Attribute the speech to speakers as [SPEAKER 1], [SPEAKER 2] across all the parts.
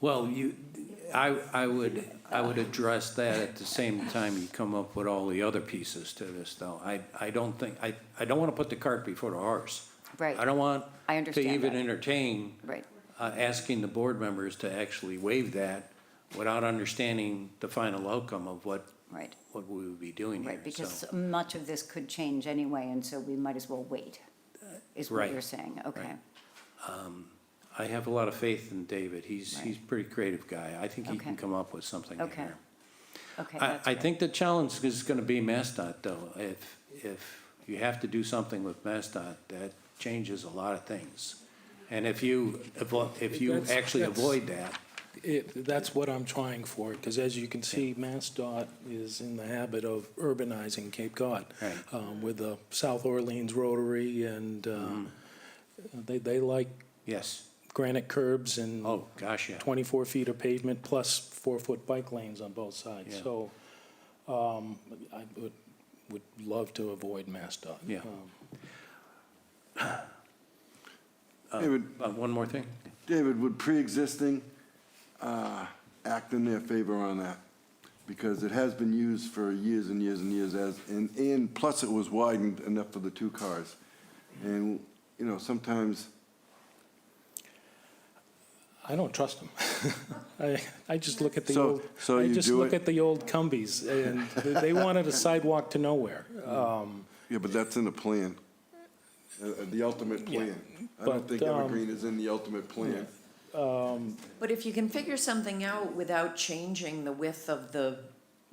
[SPEAKER 1] Well, you, I, I would, I would address that at the same time you come up with all the other pieces to this, though. I, I don't think, I, I don't want to put the cart before the horse.
[SPEAKER 2] Right.
[SPEAKER 1] I don't want
[SPEAKER 2] I
[SPEAKER 1] to
[SPEAKER 2] understand
[SPEAKER 1] even
[SPEAKER 2] that.
[SPEAKER 1] entertain
[SPEAKER 2] Right.
[SPEAKER 1] uh, asking the board members to actually waive that without understanding the final outcome of what,
[SPEAKER 2] Right,
[SPEAKER 1] what we would be doing here.
[SPEAKER 2] right, because
[SPEAKER 1] So,
[SPEAKER 2] much of this could change anyway, and so we might as well wait, is what
[SPEAKER 1] Right,
[SPEAKER 2] you're saying, okay.
[SPEAKER 1] right. I have a lot of faith in David. He's,
[SPEAKER 2] Right.
[SPEAKER 1] he's a pretty creative guy. I think he can
[SPEAKER 2] Okay.
[SPEAKER 1] come up with something in
[SPEAKER 2] Okay.
[SPEAKER 1] here.
[SPEAKER 2] Okay,
[SPEAKER 1] I,
[SPEAKER 2] that's
[SPEAKER 1] I
[SPEAKER 2] great.
[SPEAKER 1] think the challenge is gonna be MassDOT though. If, if you have to do something with MassDOT, that changes a lot of things. And if you, avo- if you
[SPEAKER 3] That's-
[SPEAKER 1] actually
[SPEAKER 3] that's-
[SPEAKER 1] avoid that,
[SPEAKER 3] It, that's what I'm trying for, because as you can see, MassDOT is in the habit of urbanizing Cape Cod.
[SPEAKER 1] Right.
[SPEAKER 3] um, With the South Orleans Rotary, and uh,
[SPEAKER 4] Mm-hmm.
[SPEAKER 3] they, they like
[SPEAKER 1] yes.
[SPEAKER 3] granite curbs and
[SPEAKER 1] Oh, gosh, yeah.
[SPEAKER 3] 24 feet of pavement plus four-foot bike lanes on both sides.
[SPEAKER 1] Yeah.
[SPEAKER 3] So um, I would, would love to avoid MassDOT.
[SPEAKER 1] Yeah.
[SPEAKER 3] Um,
[SPEAKER 4] David,
[SPEAKER 1] Uh, one more thing.
[SPEAKER 4] David, would pre-existing uh, act in their favor on that? Because it has been used for years and years and years as, and, and plus it was widened enough for the two cars. And, you know, sometimes,
[SPEAKER 3] I don't trust them. I, I just look at the
[SPEAKER 4] So-
[SPEAKER 3] old,
[SPEAKER 4] so
[SPEAKER 3] I
[SPEAKER 4] you
[SPEAKER 3] just
[SPEAKER 4] do
[SPEAKER 3] look
[SPEAKER 4] it-
[SPEAKER 3] at the old Cumbies, and they they wanted a sidewalk to nowhere. Um,
[SPEAKER 4] yeah, but that's in the plan, uh, uh, the ultimate plan. I
[SPEAKER 3] But,
[SPEAKER 4] don't think
[SPEAKER 3] um,
[SPEAKER 4] Evergreen is in the ultimate plan.
[SPEAKER 5] But if you can figure something out without changing the width of the,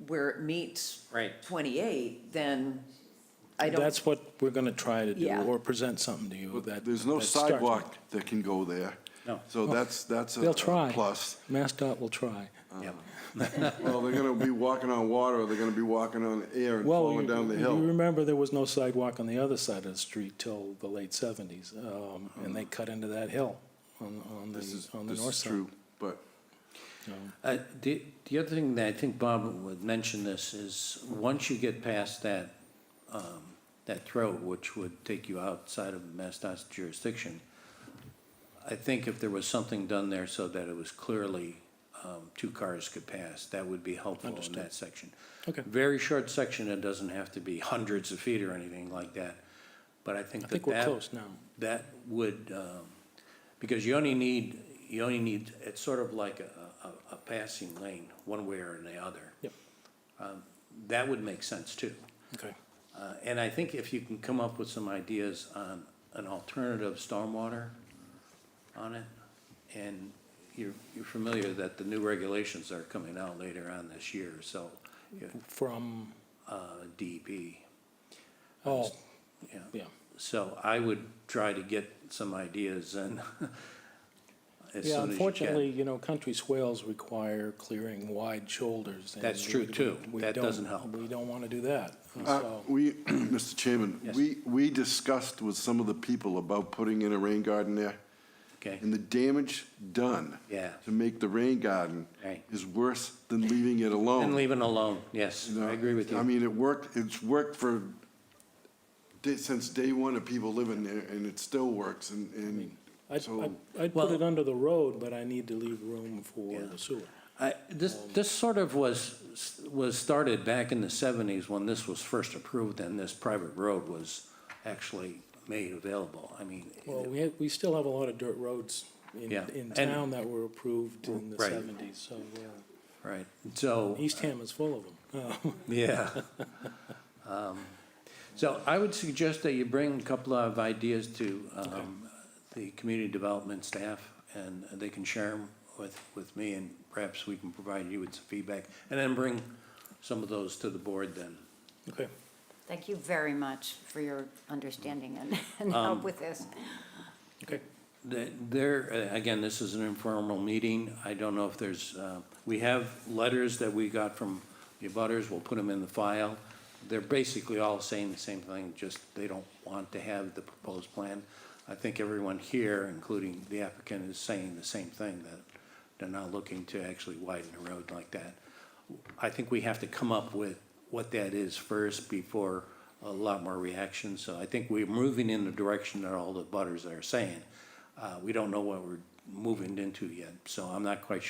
[SPEAKER 5] where it meets.
[SPEAKER 1] Right.
[SPEAKER 5] Twenty-eight, then I don't,
[SPEAKER 3] That's what we're gonna try to do,
[SPEAKER 5] Yeah.
[SPEAKER 3] or present something to you that.
[SPEAKER 4] There's no
[SPEAKER 3] that starts with-
[SPEAKER 4] sidewalk that can go there.
[SPEAKER 1] No.
[SPEAKER 4] So that's, that's a
[SPEAKER 3] They'll try.
[SPEAKER 4] a plus.
[SPEAKER 3] MassDOT will try.
[SPEAKER 1] Yep.
[SPEAKER 4] Well, they're gonna be walking on water, or they're gonna be walking on air and
[SPEAKER 3] Well, you
[SPEAKER 4] falling down the hill.
[SPEAKER 3] you remember there was no sidewalk on the other side of the street till the late seventies, um, and they cut into that hill on, on
[SPEAKER 4] Uh-huh. This
[SPEAKER 3] the,
[SPEAKER 4] is,
[SPEAKER 3] on the
[SPEAKER 4] this
[SPEAKER 3] north
[SPEAKER 4] is
[SPEAKER 3] side.
[SPEAKER 4] true, but
[SPEAKER 1] Uh, The the other thing that I think Bob would mention this is, once you get past that, um, that throat, which would take you outside of MassDOT's jurisdiction, I think if there was something done there so that it was clearly um, two cars could pass, that would be helpful in that section.
[SPEAKER 3] Okay.
[SPEAKER 1] Very short section, it doesn't have to be hundreds of feet or anything like that, but I think
[SPEAKER 3] I
[SPEAKER 1] that that.
[SPEAKER 3] think we're close now.
[SPEAKER 1] That would, um, because you only need, you only need, it's sort of like a, a, a passing lane, one way or the other.
[SPEAKER 3] Yep.
[SPEAKER 1] Um, That would make sense too.
[SPEAKER 3] Okay.
[SPEAKER 1] Uh, And I think if you can come up with some ideas on an alternative stormwater on it, and you're, you're familiar that the new regulations are coming out later on this year, so, yeah,
[SPEAKER 3] From,
[SPEAKER 1] uh, DEP,
[SPEAKER 3] oh,
[SPEAKER 1] yeah.
[SPEAKER 3] yeah,
[SPEAKER 1] So I would try to get some ideas and as soon as you
[SPEAKER 3] yeah,
[SPEAKER 1] can.
[SPEAKER 3] unfortunately, you know, country swales require clearing wide shoulders. and
[SPEAKER 1] That's true,
[SPEAKER 3] we-
[SPEAKER 1] too.
[SPEAKER 3] we
[SPEAKER 1] That
[SPEAKER 3] don't-
[SPEAKER 1] doesn't help.
[SPEAKER 3] We don't wanna do that,
[SPEAKER 4] uh,
[SPEAKER 3] so.
[SPEAKER 4] we, Mr. Chairman,
[SPEAKER 1] Yes.
[SPEAKER 4] we, we discussed with some of the people about putting in a rain garden there,
[SPEAKER 1] Okay,
[SPEAKER 4] and the damage done
[SPEAKER 1] Yeah.
[SPEAKER 4] to make the rain garden
[SPEAKER 1] Right.
[SPEAKER 4] is worse than leaving it alone.
[SPEAKER 1] and leaving alone, yes,
[SPEAKER 4] You know,
[SPEAKER 1] I agree with
[SPEAKER 4] I
[SPEAKER 1] you.
[SPEAKER 4] mean, it worked, it's worked for, di- since day one of people living there, and it still works, and, and
[SPEAKER 3] I'd,
[SPEAKER 4] So-
[SPEAKER 3] I'd- I'd put
[SPEAKER 1] Well-
[SPEAKER 3] it under the road, but I need to leave room for
[SPEAKER 1] Yeah.
[SPEAKER 3] the sewer.
[SPEAKER 1] I, this, this sort of was, was started back in the seventies when this was first approved and this private road was actually made available. I mean,
[SPEAKER 3] Well, we, had- we still have a lot of dirt roads in,
[SPEAKER 1] Yeah,
[SPEAKER 3] in
[SPEAKER 1] and-
[SPEAKER 3] town that were approved in the
[SPEAKER 1] Right.
[SPEAKER 3] seventies, so, uh,
[SPEAKER 1] right, so.
[SPEAKER 3] Eastham is full of them. Uh,
[SPEAKER 1] Yeah. Um, So I would suggest that you bring a couple of ideas to um, the community development staff, and they can share them with, with me, and perhaps we can provide you with some feedback, and then bring some of those to the board then.
[SPEAKER 3] Okay,
[SPEAKER 2] Thank you very much for your understanding and, and
[SPEAKER 1] Um,
[SPEAKER 2] help with this.
[SPEAKER 3] okay.
[SPEAKER 1] The- There, uh, again, this is an informal meeting. I don't know if there's, uh, we have letters that we got from the abutters. We'll put them in the file. They're basically all saying the same thing, just they don't want to have the proposed plan. I think everyone here, including the applicant, is saying the same thing, that they're not looking to actually widen the road like that. I think we have to come up with what that is first before a lot more reaction. So I think we're moving in the direction that all the butters are saying. Uh, we don't know what we're moving into yet, so I'm not quite sure.